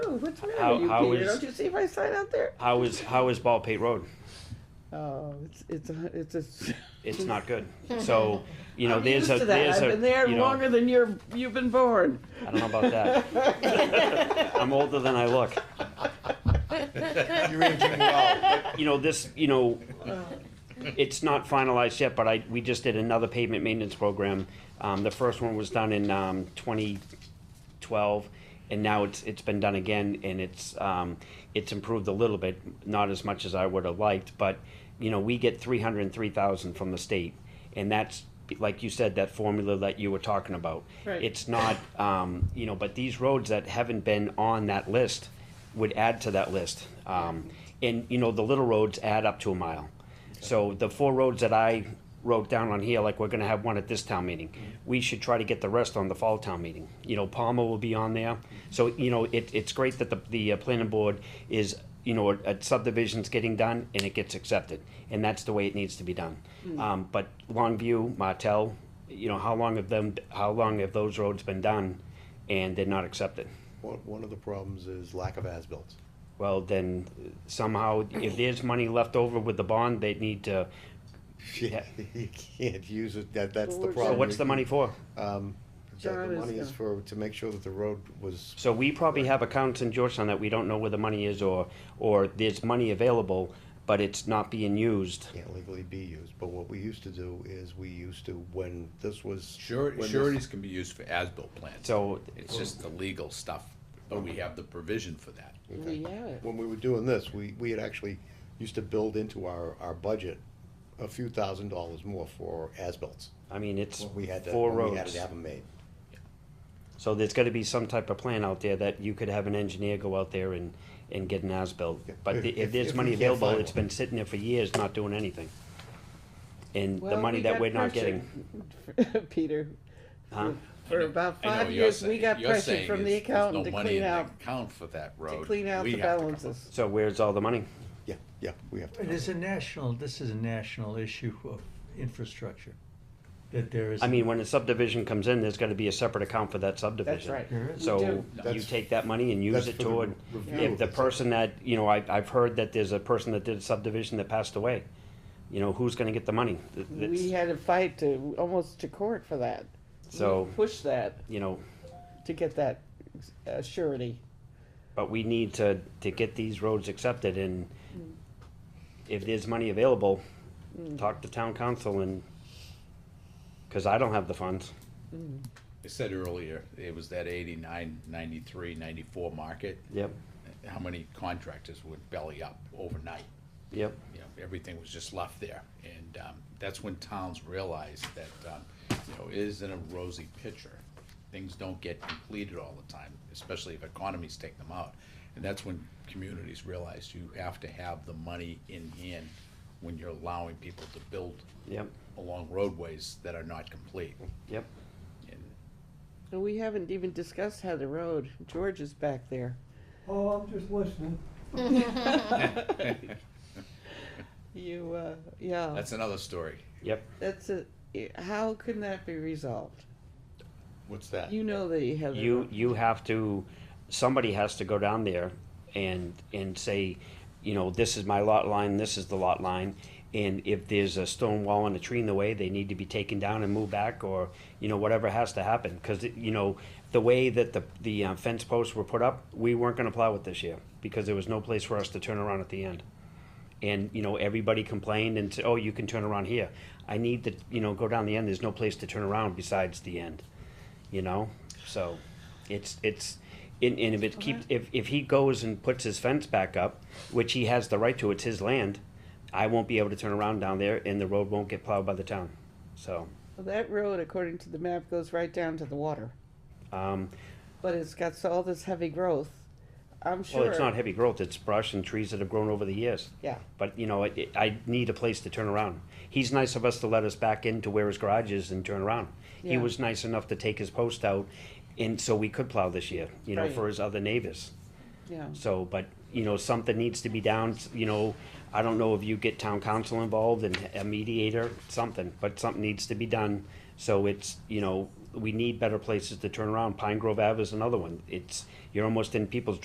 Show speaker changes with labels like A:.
A: Oh, What's the
B: How-
A: matter with you,
B: how
A: Peter?
B: is-
A: Don't you see my sign out there?
B: How is how is Baldpate Road?
A: Oh, it's, it's, a- it's, a-
B: It's not good. So you know,
A: I'm
B: there's
A: used
B: a
A: to that.
B: there's
A: I've
B: a
A: been there
B: you know,
A: longer than you're, you've been born.
B: I don't know about that. I'm older than I look.
C: You're aging well.
B: You know this. You know, it's not finalized yet, but I we just did another pavement maintenance program. Um, the first one was done in um, 2012, and now it's it's been done again, and it's um, it's improved a little bit, not as much as I would have liked, but you know we get 303,000 from the state, and that's like you said that formula that you were talking about.
A: Right.
B: It's not um, you know, but these roads that haven't been on that list would add to that list. Um, and you know the little roads add up to a mile. So the four roads that I wrote down on here, like we're gonna have one at this town meeting, we should try to get the rest on the fall town meeting. You know, Palmer will be on there, so, you know, it, it's great that the, the uh, planning board is, you know, a subdivision's getting done and it gets accepted, and that's the way it needs to be done. Um, but Longview, Martell, you know, how long have them, how long have those roads been done and they're not accepted?
C: One, one of the problems is lack of as-bills.
B: Well, then somehow, if there's money left over with the bond, they need to,
C: You can't use it, that, that's the
A: Well, we're-
C: problem.
B: so what's the money for?
C: Um, the- the
A: John is
C: money is
A: gonna-
C: for, to make sure that the road was,
B: So we probably have accounts in Georgetown that we don't know where the money is or, or there's money available, but it's not being used.
C: can't legally be used, but what we used to do is we used to, when this was.
D: Sure,
C: when this-
D: sureties can be used for as-built plans.
B: So-
D: It's just the legal stuff, but we have the provision for that.
C: Okay.
A: Yeah.
C: When we were doing this, we, we had actually used to build into our, our budget a few thousand dollars more for as-bills.
B: I mean, it's
C: We had to,
B: four
C: we had
B: roads.
C: to have them made.
B: So there's gotta be some type of plan out there that you could have an engineer go out there and, and get an as-built.
C: Yeah,
B: But
C: if-
B: the- if
C: if-
B: there's
C: if we
B: money
C: can't
B: available,
C: find
B: it's
C: one.
B: been sitting there for years, not doing anything. And the
A: Well,
B: money
A: we
B: that
A: got
B: we're not
A: pressure.
B: getting,
A: Peter,
B: huh?
A: for about
D: I know
A: five
D: you're
A: years, we
D: saying-
A: got
D: you're
A: pressure
D: saying
A: from
D: is
A: the
D: there's
A: accountant
D: no
A: to
D: money
A: clean
D: in the
A: out,
D: Account for that
A: to
D: road.
A: clean out
D: We
A: the
D: have to come up-
A: balances.
B: So where's all the money?
C: Yeah, yeah, we have to.
E: It is a national, this is a national issue of infrastructure, that there is.
B: I mean, when a subdivision comes in, there's gotta be a separate account for that
A: That's
B: subdivision.
A: right.
E: There is.
A: We
B: So
A: do.
B: you
C: That's-
B: take that money and use
C: that's
B: it
C: for the
B: toward,
C: review
B: if
C: of
B: the
C: the
B: person that, you know, I, I've heard that there's a person that did a subdivision that passed away. You know, who's gonna get the money? Th-
A: We
B: that's-
A: had a fight to, almost to court for that. We
B: So-
A: Pushed that
B: You know,
A: to get that uh, surety.
B: but we need to, to get these roads accepted and
A: Mm.
B: if there's money available, talk to town council and, cause I don't have the funds.
D: I said earlier, it was that 89, 93, 94 market.
B: Yep,
D: How many contractors would belly up overnight?
B: yep.
D: you know, everything was just left there. And um, that's when towns realized that, um, you know, it isn't a rosy picture. Things don't get completed all the time, especially if economies take them out. And that's when communities realize you have to have the money in hand when you're allowing people to build
B: Yep.
D: along roadways that are not complete.
B: Yep.
D: And
A: And we haven't even discussed how the road, George is back there.
E: Oh, I'm just listening.
A: You, uh, yeah,
D: that's another story.
B: Yep.
A: that's a, how can that be resolved?
C: What's that?
A: You know that you have. the
B: You,
A: road.
B: you have to, somebody has to go down there and, and say, you know, this is my lot line, this is the lot line. And if there's a stone wall and a tree in the way, they need to be taken down and moved back or, you know, whatever has to happen. Cause, it- you know, the way that the, the uh, fence posts were put up, we weren't gonna plow it this year because there was no place for us to turn around at the end. And, you know, everybody complained and said, oh, you can turn around here. I need to, you know, go down the end. There's no place to turn around besides the end you know so it's it's and, and if it keeps if, if he goes and puts his fence back up which he has the right to it's his land i won't be able to turn around down there and the road won't get plowed by the town so
A: Well, That road, according to the map, goes right down to the water,
B: um,
A: but it's got so- all this heavy growth. I'm sure.
B: well it's not heavy growth it's brush and trees that have grown over the years
A: Yeah.
B: but you know I, I need a place to turn around he's nice of us to let us back into where his garage is and turn around he
A: Yeah.
B: was nice enough to take his post out and so we could plow this year you know
A: Right.
B: for his other neighbors
A: Yeah.
B: So, but, you know, something needs to be down, you know, I don't know if you get town council involved and a mediator, something, but something needs to be done. So it's, you know, we need better places to turn around. Pine Grove Ave is another one. It's, you're almost in people's